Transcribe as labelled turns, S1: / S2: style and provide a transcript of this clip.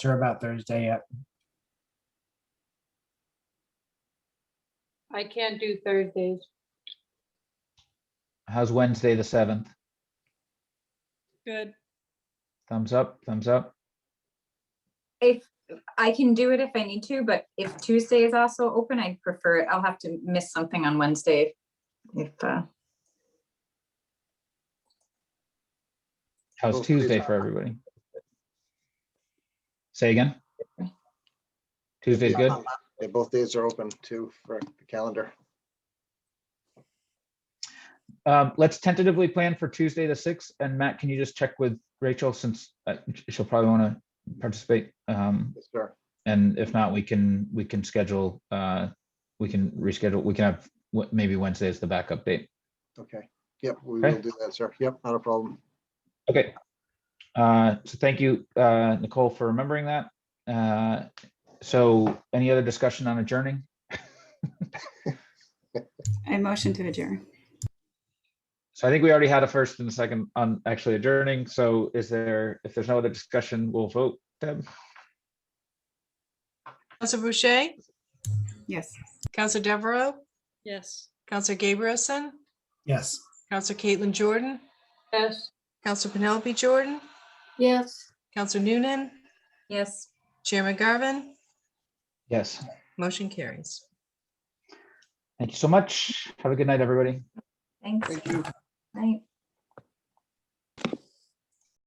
S1: sure about Thursday yet.
S2: I can't do Thursdays.
S3: How's Wednesday, the seventh?
S2: Good.
S3: Thumbs up, thumbs up.
S4: If, I can do it if I need to, but if Tuesday is also open, I'd prefer it. I'll have to miss something on Wednesday. If, uh,
S3: How's
S5: Hopefully it's
S3: Tuesday
S5: not-
S3: for everybody? Say again? Tuesday's good?
S5: Uh, Yeah, both days are open too for the calendar.
S3: Um, let's tentatively plan for Tuesday, the sixth. And Matt, can you just check with Rachel since uh, she'll probably want to participate? Um,
S5: Yes, sir.
S3: and if not, we can, we can schedule, uh, we can reschedule, we can have, what, maybe Wednesday is the backup date.
S5: Okay. Yep, we
S3: Okay.
S5: will do that, sir. Yep, not a problem.
S3: Okay. Uh, So thank you, uh, Nicole, for remembering that. Uh, So any other discussion on adjourning?
S6: I motion to adjourn.
S3: So I think we already had a first and a second on actually adjourning. So is there, if there's no other discussion, we'll vote. Deb,
S7: Counselor Boucher,
S6: Yes.
S7: Counselor Deveraux,
S2: Yes.
S7: Counselor Gabrielson,
S1: Yes.
S7: Counselor Caitlin Jordan,
S2: Yes.
S7: Counselor Penelope Jordan,
S2: Yes.
S7: Counselor Noonan,
S4: yes.
S7: Chairman Garvin,
S3: Yes.
S7: motion carries.
S3: Thank you so much. Have a good night, everybody.
S4: Thanks.
S5: Thank you.
S4: Night.